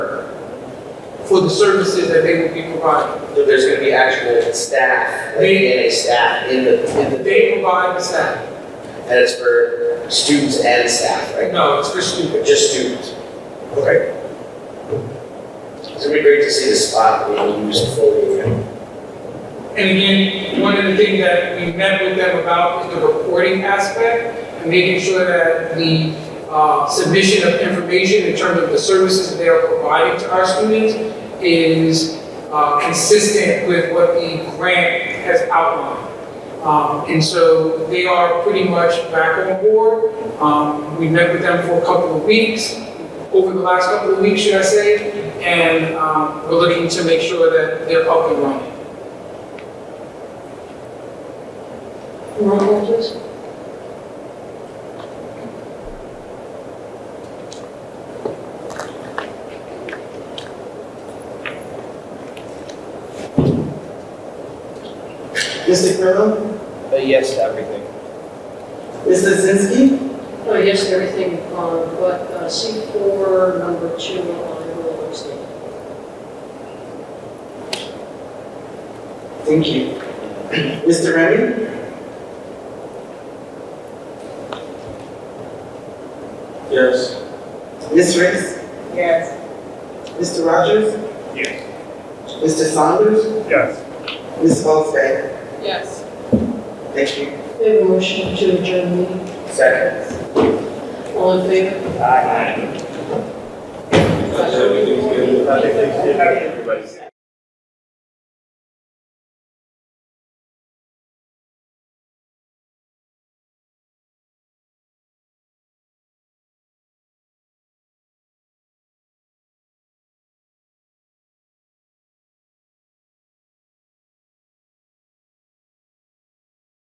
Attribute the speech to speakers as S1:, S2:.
S1: for the services that they will be providing.
S2: There- There's gonna be actual staff, like NA staff in the, in the,
S1: They provide the staff.
S2: and it's for students and staff, right?
S1: No, it's for students.
S2: Just students. Okay. It's gonna be great to see the spot being used fully again.
S1: And again, one of the things that we met with them about is the reporting aspect and making sure that the uh, submission of information in terms of the services that they are providing to our students is uh, consistent with what the grant has outlined. Um, And so they are pretty much back on board. Um, We met with them for a couple of weeks, over the last couple of weeks, should I say, and um, we're looking to make sure that they're up and running.
S3: Roll call, please.
S4: Mr. Kirill?
S5: A Uh, yes to everything.
S4: Ms. Lozinski?
S3: Oh, yes, everything, um, but uh, C4, number two, I will abstain.
S4: Thank you. Mr. Remy?
S6: Yes.
S4: Ms. Ricks?
S3: Yes.
S4: Mr. Rogers?
S6: Yes.
S4: Mr. Saunders?
S6: Yes.
S4: Ms. Wolfgang?
S3: Yes.
S4: Thank you.
S3: We have a motion to adjourn meeting.
S2: Second.
S3: All in favor?
S6: I think they did. I think they did. Everybody's.